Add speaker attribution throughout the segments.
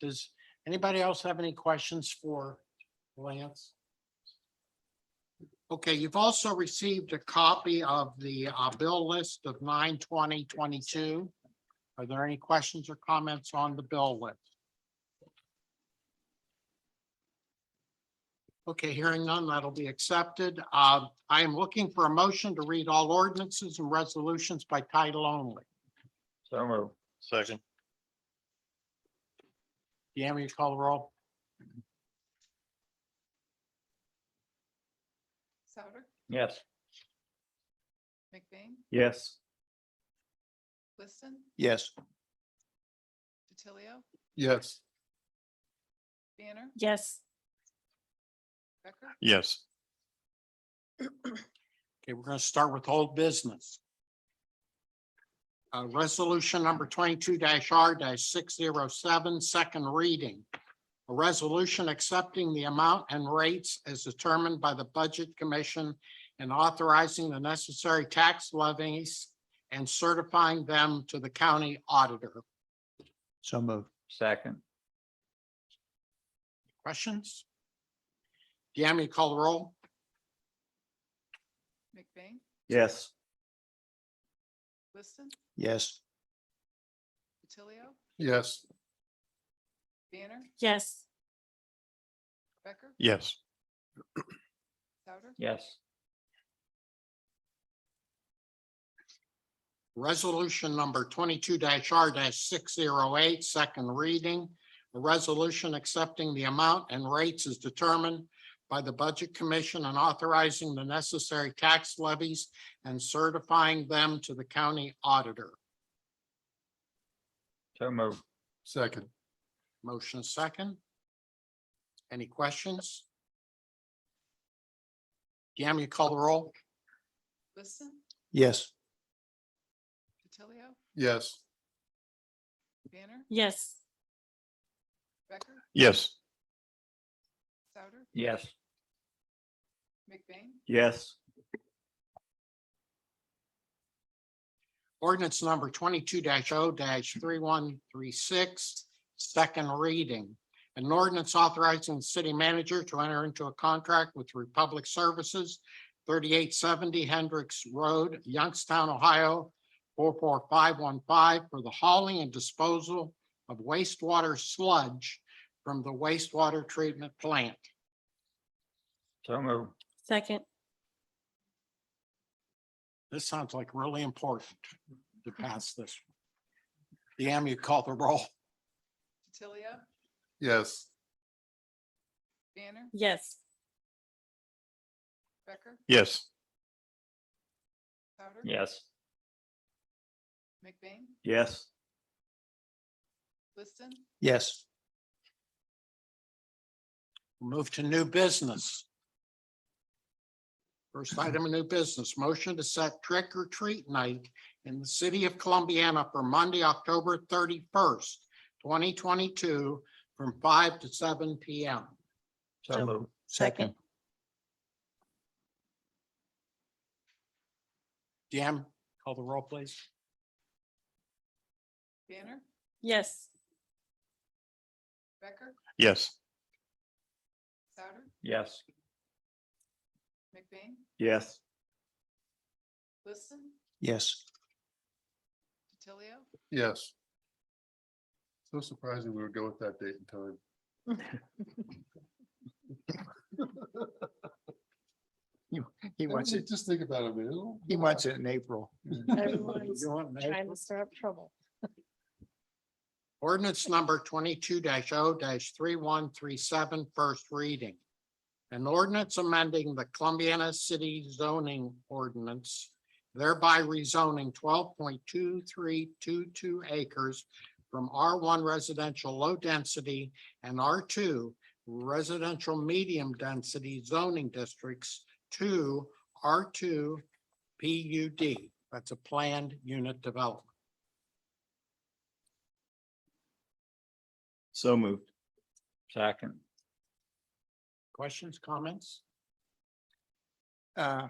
Speaker 1: Does anybody else have any questions for Lance? Okay, you've also received a copy of the uh, bill list of nine twenty twenty-two. Are there any questions or comments on the bill list? Okay, hearing none, that'll be accepted. Uh, I am looking for a motion to read all ordinances and resolutions by title only.
Speaker 2: So move.
Speaker 3: Second,
Speaker 1: Yami, you call the roll?
Speaker 4: Souter,
Speaker 2: Yes.
Speaker 4: McBain,
Speaker 2: Yes.
Speaker 4: Liston,
Speaker 3: yes.
Speaker 4: DiTilio,
Speaker 3: Yes.
Speaker 4: Banner,
Speaker 5: yes.
Speaker 4: Becker,
Speaker 3: Yes.
Speaker 1: Okay, we're gonna start with old business. Uh, resolution number twenty-two R six zero seven, second reading. A resolution accepting the amount and rates as determined by the Budget Commission and authorizing the necessary tax levies and certifying them to the county auditor.
Speaker 2: So move. Second.
Speaker 1: Questions? Yami, call the roll?
Speaker 4: McBain,
Speaker 2: Yes.
Speaker 4: Liston,
Speaker 2: Yes.
Speaker 4: DiTilio,
Speaker 1: Yes.
Speaker 4: Banner,
Speaker 5: Yes,
Speaker 4: Becker,
Speaker 3: Yes.
Speaker 4: Souter,
Speaker 2: Yes.
Speaker 1: Resolution number twenty-two R six zero eight, second reading. A resolution accepting the amount and rates as determined by the Budget Commission and authorizing the necessary tax levies and certifying them to the county auditor.
Speaker 2: So move.
Speaker 3: Second,
Speaker 1: Motion is second. Any questions? Yami, you call the roll?
Speaker 4: Liston,
Speaker 2: Yes.
Speaker 4: DiTilio,
Speaker 3: yes.
Speaker 4: Banner,
Speaker 5: yes,
Speaker 4: Becker,
Speaker 3: Yes.
Speaker 4: Souter,
Speaker 2: Yes.
Speaker 4: McBain,
Speaker 2: Yes.
Speaker 1: Ordinance number twenty-two 0 three-one-three-six, second reading. An ordinance authorizing the city manager to enter into a contract with Republic Services, thirty-eight seventy Hendricks Road, Youngstown, Ohio, four-four-five-one-five for the hauling and disposal of wastewater sludge from the wastewater treatment plant.
Speaker 2: So move.
Speaker 5: second,
Speaker 1: This sounds like really important to pass this. Deanne, you call the roll.
Speaker 4: DiTilio,
Speaker 3: Yes.
Speaker 4: Banner,
Speaker 5: yes,
Speaker 4: Becker,
Speaker 3: Yes.
Speaker 4: Souter,
Speaker 2: Yes.
Speaker 4: McBain,
Speaker 2: Yes.
Speaker 4: Liston,
Speaker 2: Yes.
Speaker 1: Move to new business. First item of new business, motion to set trick or treat night in the city of Columbiana for Monday, October thirty-first, twenty twenty-two, from five to seven P M.
Speaker 2: So move.
Speaker 5: Second.
Speaker 1: Jim, call the roll, please.
Speaker 4: Banner,
Speaker 5: yes,
Speaker 4: Becker,
Speaker 3: Yes.
Speaker 4: Souter,
Speaker 2: Yes.
Speaker 4: McBain,
Speaker 2: Yes.
Speaker 4: Liston,
Speaker 2: Yes.
Speaker 4: DiTilio,
Speaker 3: Yes. So surprising we would go with that date and time.
Speaker 2: He
Speaker 3: I mean, Just think about it, man.
Speaker 2: he wants it in April.
Speaker 5: everyone's
Speaker 1: You want me?
Speaker 5: trying to stir up trouble.
Speaker 1: Ordinance number twenty-two 0 three-one-three-seven, first reading. An ordinance amending the Columbiana City zoning ordinance, thereby rezoning twelve point two-three-two-two acres from R one residential low density and R two residential medium density zoning districts to R two PUD. That's a planned unit development.
Speaker 2: So moved. Second.
Speaker 1: Questions, comments?
Speaker 6: uh,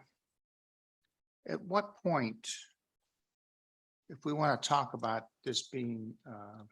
Speaker 6: At what point, if we want to talk about this being uh,